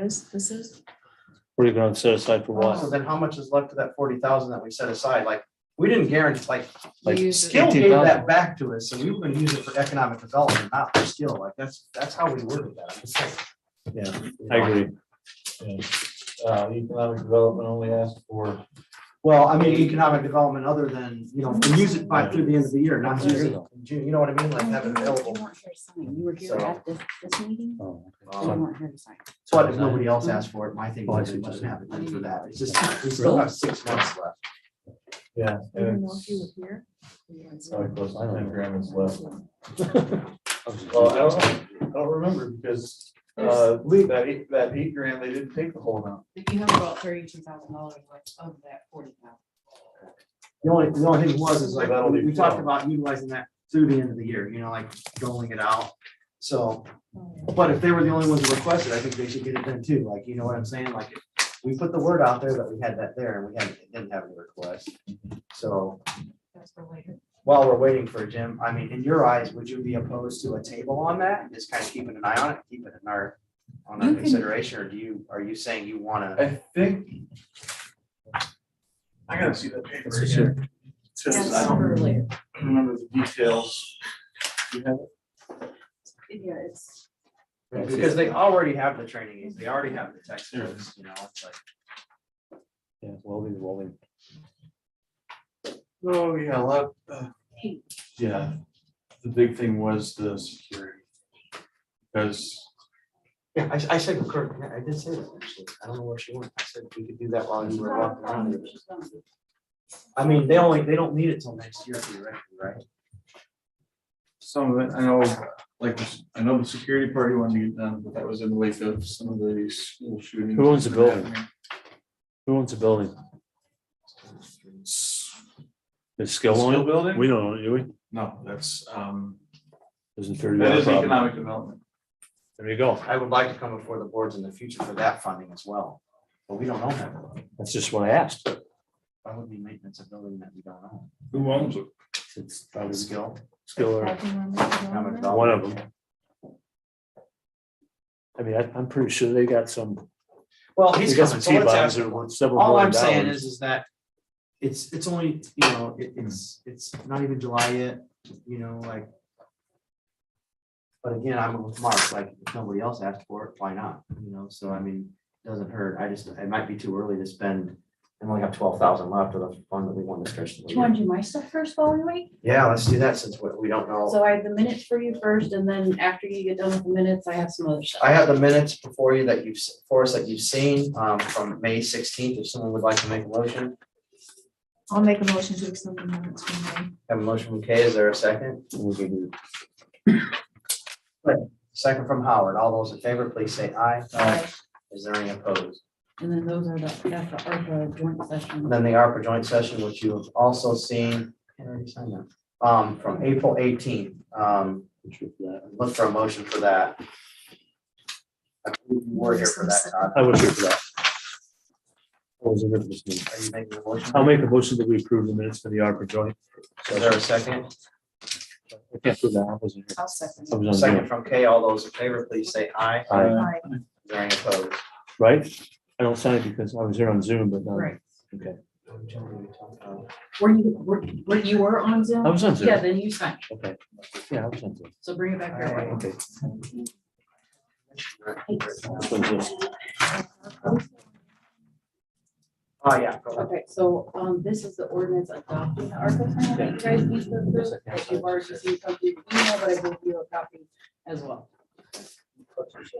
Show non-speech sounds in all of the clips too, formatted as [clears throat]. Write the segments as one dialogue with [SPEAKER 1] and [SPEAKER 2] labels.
[SPEAKER 1] This, this is,
[SPEAKER 2] What are you gonna set aside for
[SPEAKER 3] So
[SPEAKER 1] Oh,
[SPEAKER 2] what?
[SPEAKER 3] Oh, then how much is left of that forty thousand that we set aside? Like, we didn't guarantee, like,
[SPEAKER 2] Like
[SPEAKER 1] Use it.
[SPEAKER 3] Skill gave
[SPEAKER 2] 18,000.
[SPEAKER 3] that back to us, and we were gonna use it for economic development, not for skill. Like, that's, that's how we worded that. I'm just saying.
[SPEAKER 4] Yeah.
[SPEAKER 2] I agree.
[SPEAKER 4] Uh, economic development only asked for.
[SPEAKER 3] Well, I mean, economic development other than, you know, we use it by through the end of the year, not use it in June, you know what I mean? Like, have it available.
[SPEAKER 5] You weren't here to sign. You were here
[SPEAKER 3] So- Um,
[SPEAKER 5] at this, this meeting,
[SPEAKER 2] Oh,
[SPEAKER 5] but you weren't here to sign.
[SPEAKER 3] But if nobody else asked for it, my thing
[SPEAKER 2] Oh, I
[SPEAKER 3] is
[SPEAKER 2] see
[SPEAKER 3] it
[SPEAKER 2] what
[SPEAKER 3] doesn't
[SPEAKER 2] you're
[SPEAKER 3] have it done for that. It's just, we still have six months left.
[SPEAKER 4] Yeah.
[SPEAKER 1] I don't know if you were here. You guys
[SPEAKER 4] Probably
[SPEAKER 1] were.
[SPEAKER 4] close to ten grand is left. Well, I
[SPEAKER 2] okay.
[SPEAKER 4] don't, I don't remember because, uh, Lee, that eight, that eight grand, they didn't take the whole amount.
[SPEAKER 5] But you have about thirty-two thousand dollars left of that forty thousand.
[SPEAKER 3] The only, the only thing was is like,
[SPEAKER 4] That'll be
[SPEAKER 3] we talked
[SPEAKER 4] twelve.
[SPEAKER 3] about utilizing that through the end of the year, you know, like doling it out. So,
[SPEAKER 5] Oh,
[SPEAKER 3] but if they were the only ones who requested, I think they should get it done too. Like, you know what I'm saying? Like, if we put the word out there that we had that there and we had, didn't have any request. So
[SPEAKER 5] That's for later.
[SPEAKER 3] while we're waiting for a Jim, I mean, in your eyes, would you be opposed to a table on that? Just kind of keeping an eye on it, keep it in our, on our
[SPEAKER 5] You can-
[SPEAKER 3] consideration, or do you, are you saying you wanna?
[SPEAKER 4] I think. I gotta see that paper
[SPEAKER 2] That's for sure.
[SPEAKER 4] again. Just, I
[SPEAKER 5] That's
[SPEAKER 4] don't
[SPEAKER 5] for later.
[SPEAKER 4] remember the details. You have it?
[SPEAKER 5] Yeah, it's.
[SPEAKER 3] Because they already have the trainings, they already have the textbooks, you know, it's like.
[SPEAKER 2] Yeah, welding, welding.
[SPEAKER 4] Oh, yeah, a lot, uh,
[SPEAKER 5] Hey,
[SPEAKER 4] Yeah, the big thing was the security. Because,
[SPEAKER 3] Yeah, I, I said, Kirk, yeah, I did say that, actually. I don't know where she went. I said, we could do that while you were walking around. I mean, they only, they don't need it till next year theoretically, right?
[SPEAKER 4] some of it, I know, like, I know the security party wanted to get done, but that was in the wake of some of the school shootings.
[SPEAKER 2] Who owns the building? Who owns the building? Is Skill
[SPEAKER 4] Skill
[SPEAKER 2] on
[SPEAKER 4] building?
[SPEAKER 2] it? We don't own it, do we?
[SPEAKER 4] No, that's, um,
[SPEAKER 2] Isn't thirty
[SPEAKER 4] that
[SPEAKER 2] dollar
[SPEAKER 4] is
[SPEAKER 2] problem?
[SPEAKER 4] economic development.
[SPEAKER 2] There you go.
[SPEAKER 3] I would like to come before the boards in the future for that funding as well, but we don't own that. building.
[SPEAKER 2] That's just what I asked.
[SPEAKER 3] Why would we maintenance a building that we don't own?
[SPEAKER 4] Who owns it?
[SPEAKER 2] It's probably Skill
[SPEAKER 3] Skill.
[SPEAKER 2] or one of them. I mean, I, I'm pretty sure they got some,
[SPEAKER 3] Well,
[SPEAKER 2] they
[SPEAKER 3] he's
[SPEAKER 2] got some
[SPEAKER 3] coming, so
[SPEAKER 2] T
[SPEAKER 3] let's
[SPEAKER 2] bonds
[SPEAKER 3] ask.
[SPEAKER 2] that are worth several
[SPEAKER 3] All
[SPEAKER 2] million
[SPEAKER 3] I'm saying
[SPEAKER 2] dollars.
[SPEAKER 3] is, is that it's, it's only, you know, it- it's, it's not even July yet, you know, like. But again, I'm with Mark, like, if nobody else asked for it, why not, you know, so I mean, it doesn't hurt, I just, it might be too early to spend. And we only have twelve thousand left of the fund that we want to stretch.
[SPEAKER 5] Do you want to do my stuff first while we wait?
[SPEAKER 3] Yeah, let's do that since we, we don't know,
[SPEAKER 5] So I have the minutes for you first, and then after you get done with the minutes, I have some other stuff.
[SPEAKER 3] I have the minutes before you that you've, s- for us that you've seen, um, from May sixteenth, if someone would like to make a motion.
[SPEAKER 1] I'll make a motion to accept the minutes from
[SPEAKER 3] Have a motion from Kay, is there a second?
[SPEAKER 2] We can do-
[SPEAKER 3] Second from Howard. All those in favor, please say aye.
[SPEAKER 5] Aye.
[SPEAKER 3] Is there any opposed?
[SPEAKER 5] And then those are the, that's the ARPA joint session.
[SPEAKER 3] And Then the ARPA joint session, which you have also seen, I already signed that, um, from April eighteenth. Um, look for a motion for that. I believe you We're here for that, Todd.
[SPEAKER 2] I was here for that. I was here for this meeting.
[SPEAKER 3] Are you making a motion?
[SPEAKER 2] I'll make a motion that we approve the minutes for the ARPA joint.
[SPEAKER 3] Is there a second?
[SPEAKER 2] I can't prove that. I wasn't here.
[SPEAKER 5] I'll second.
[SPEAKER 2] I was on
[SPEAKER 3] Second
[SPEAKER 2] Zoom.
[SPEAKER 3] from Kay. All those in favor, please say aye.
[SPEAKER 2] Aye.
[SPEAKER 1] May. Aye.
[SPEAKER 3] Is there any opposed?
[SPEAKER 2] Right? I don't sign it because I was here on Zoom, but not.
[SPEAKER 5] Right.
[SPEAKER 2] Okay.
[SPEAKER 5] Were you, were, were you were on Zoom?
[SPEAKER 2] I was on
[SPEAKER 5] Yeah,
[SPEAKER 2] Zoom.
[SPEAKER 5] then you signed.
[SPEAKER 2] Okay. Yeah, I was on Zoom.
[SPEAKER 5] So bring it back here.
[SPEAKER 3] Aye.
[SPEAKER 2] Okay. This
[SPEAKER 3] Oh,
[SPEAKER 2] one's this.
[SPEAKER 3] Oh, yeah. go ahead.
[SPEAKER 5] Okay, so, um, this is the ordinance adopting the ARPA plan that you guys need to approve, if you've already seen something, email, but I gave you a copy as well.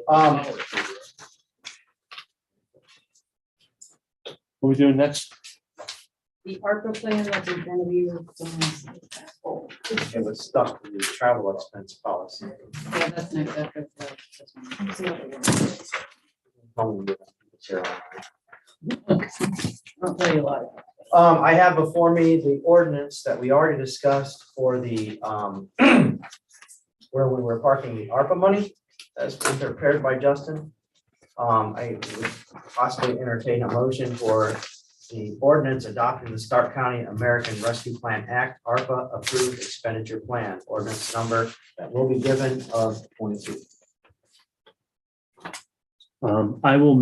[SPEAKER 3] Um,
[SPEAKER 2] What we doing next?
[SPEAKER 5] The ARPA plan that's in front of you. is, um,
[SPEAKER 3] it was stuck in the travel expense policy.
[SPEAKER 5] Yeah, that's next after. the- this one. It's the other one.
[SPEAKER 3] Home material.
[SPEAKER 5] I'll tell you a lot. about it.
[SPEAKER 3] Um, I have before me the ordinance that we already discussed for the, um, [clears throat] where we were parking the ARPA money that's been prepared by Justin. Um, I would possibly entertain a motion for the ordinance adopting the Stark County American Rescue Plan Act, ARPA approved expenditure plan, ordinance number that will be given of twenty-two.
[SPEAKER 2] Um, I will